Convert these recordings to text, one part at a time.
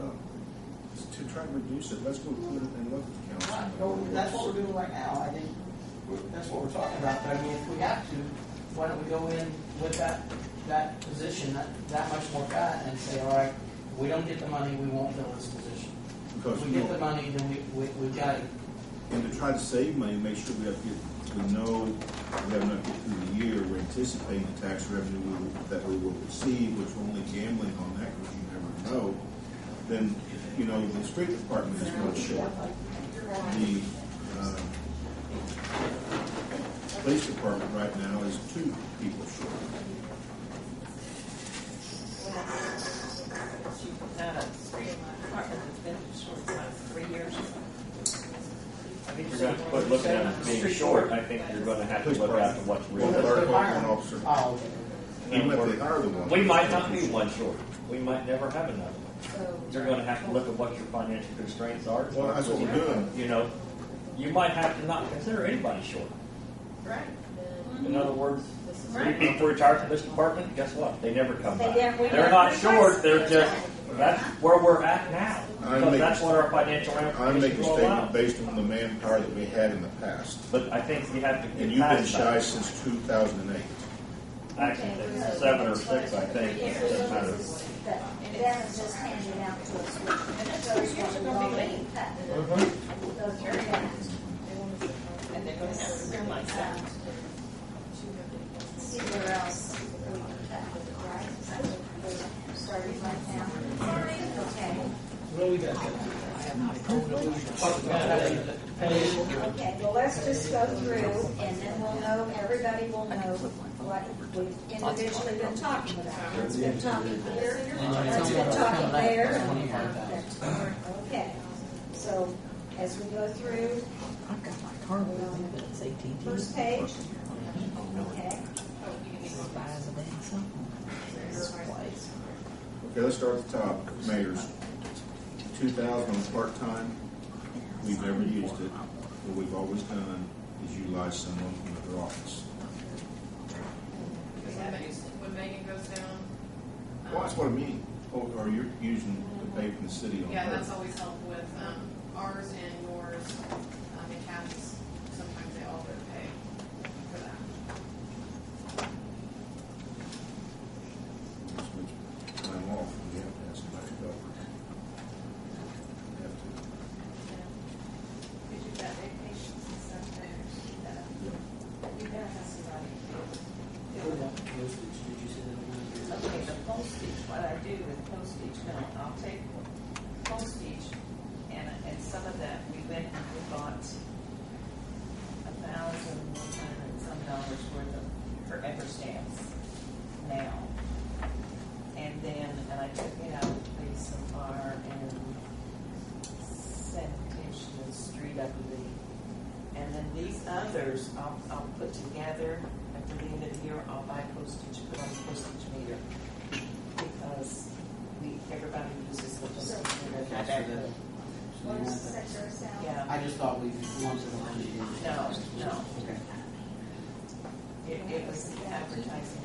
Uh, to try to reduce it, let's go put it in local Right, council. well, that's what we're doing right now, I think, we're- that's what we're talking about, but I mean, if we have to, why don't we go in with that, that position, that, that much more guy, and say, all right, we don't get the money, we won't fill this position. Because, If we get the money, then we, we, we've got it. and to try to save money, make sure we have to get, we know we have enough to get through the year, we're anticipating the tax revenue we will- that we will receive, which we're only gambling on that, because you never know. Then, you know, the street department is going to show up. the uh, police department right now is two people short. Not a street apartment that's been short for three years. I think You're gonna quit looking at being short, I think you're gonna have to look at what's Well, real. our one officer, Oh, even if they hire the one. We might not be one short, we might never have another one. You're gonna have to look at what your financial constraints are. Well, that's what we're doing. You know, you might have to not consider anybody short. Right. In other words, three Right. people retired from this department, guess what? They never come They back. never- we They're never not replace short, they're them. just, that's where we're at now. I Because make- that's what our financial I make ramifications a will statement allow. based on the manpower that we had in the past, But I think we have to get and you've been past shy that. since two thousand and eight. Actually, there's seven or six, I think, it doesn't matter. But that was just handed out to us. And that's three years ago, they leave. Those were passed. And they're gonna have to clear my Um, side. See where else we can tackle it, right? So we Started right now. Okay, Really got that. okay, well, let's just go through and then we'll know, everybody will know what we've individually been talking about. What's been talking here, what's been talking there. Okay, so as we go through, I've got my car with me, but it's eighteen. First page. okay? Okay, let's start at the top, mayor's, two thousand on part-time, we've never used it. What we've always done is utilize someone from another office. When Megan goes down. um, Well, that's what I mean, or, or you're using the pay from the city on Yeah, her. that's always helpful with um, ours and yours, um, and Kathy's, sometimes they all go to pay for that. Time off, we have to have somebody to cover. We have to. We do that vacations and stuff there. We gotta have somebody. Okay, the postage, what I do with postage, no, I'll take postage, and, and some of that, we went and we bought a thousand, one hundred and some dollars worth of forever stamps now. And then, and I took it out, of some bar and sanitation street, I believe. And then these others, I'll, I'll put together, at the end of the year, I'll buy postage, put on the postage meter. Because we, everybody uses the postage meter. What is the secretary of sound? Yeah. I just thought we wanted the money. No, no. Okay. It, it was advertising.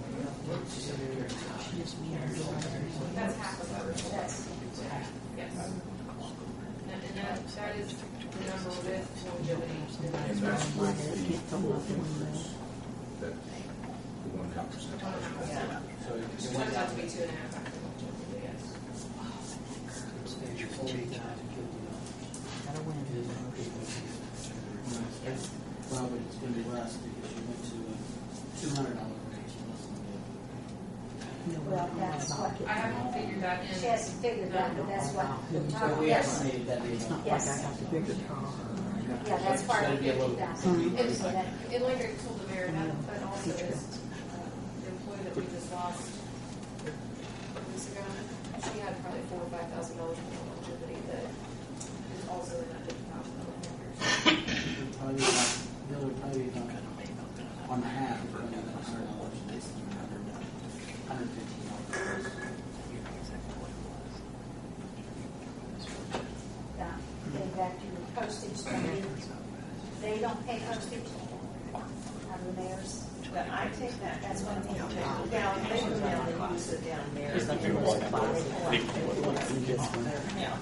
She said we were in touch. That's half of ours. That's, Yes. And and that, that is the number with longevity. And that's with the four fingers, that, the one half percent. Yeah. So it went down Sometimes that's to be be two and a half after longevity, yes. Yes. Well, but it's gonna be less because you went to a two hundred dollar raise plus the. well, that's what, I haven't figured that in. she hasn't figured out, but that's what we're So talking, we yes. haven't made that deal. It's not like I Yes. have to figure it out. Yeah, that's part of That'd be a little- 50,000. Mhm. And, and like I told the mayor, that, but also is, uh, the employee that we just lost a weeks ago, she had probably four or five thousand dollars in longevity that is also in that fifty thousand dollar figure. It'd probably be about, bill would probably be about one half, if only about hundred dollars, less than a hundred, hundred fifteen dollars. Now, Getting back to your postage thing, they don't pay postage out of the mayor's. But I take that, that's That's what one thing. I'm thinking. Now, they go down, they use it down there. There's nothing wrong with that. Yeah.